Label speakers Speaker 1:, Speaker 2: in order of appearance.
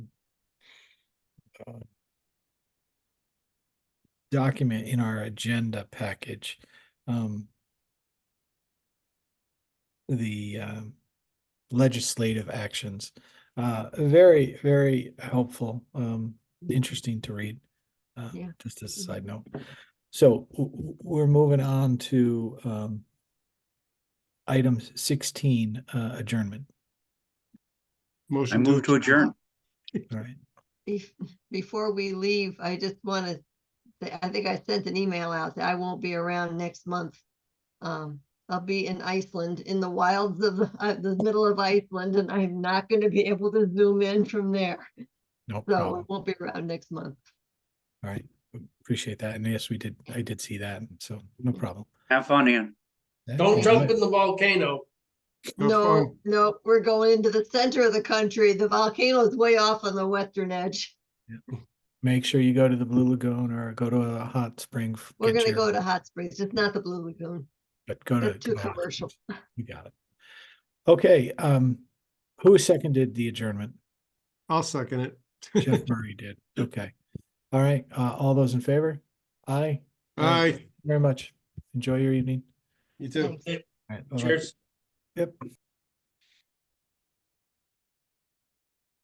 Speaker 1: God. Document in our agenda package. Um. The um legislative actions, uh, very, very helpful, um, interesting to read. Uh,
Speaker 2: Yeah.
Speaker 1: just as a side note. So w- w- we're moving on to, um. Item sixteen, uh, adjournment,
Speaker 3: I
Speaker 4: Motion
Speaker 3: move to adjourn.
Speaker 1: All right?
Speaker 2: Bef- Before we leave, I just want to, I think I sent an email out that I won't be around next month. Um, I'll be in Iceland, in the wilds of, uh, the middle of Iceland, and I'm not going to be able to zoom in from there.
Speaker 1: No
Speaker 2: So I
Speaker 1: problem.
Speaker 2: won't be around next month.
Speaker 1: All right, appreciate that. And yes, we did, I did see that, so no problem.
Speaker 3: Have fun, Ian.
Speaker 5: Don't
Speaker 1: Yeah.
Speaker 5: jump in the volcano.
Speaker 4: No
Speaker 2: No,
Speaker 4: fun.
Speaker 2: no, we're going into the center of the country. The volcano is way off on the western edge.
Speaker 1: Make sure you go to the Blue Lagoon or go to a hot spring. f-
Speaker 2: We're
Speaker 1: get
Speaker 2: going to
Speaker 1: your-
Speaker 2: go to Hot Springs. It's not the Blue Lagoon.
Speaker 1: But go to.
Speaker 2: That's too
Speaker 1: go out.
Speaker 2: commercial.
Speaker 1: You got it. Okay, um, who seconded the adjournment?
Speaker 4: I'll second it.
Speaker 1: Jeff Murray did. Okay. All right, uh, all those in favor? Aye,
Speaker 4: Aye,
Speaker 1: very much. Enjoy your evening.
Speaker 4: you too.
Speaker 2: Thanks.
Speaker 1: All right, bye-bye.
Speaker 5: Cheers.
Speaker 1: Yep.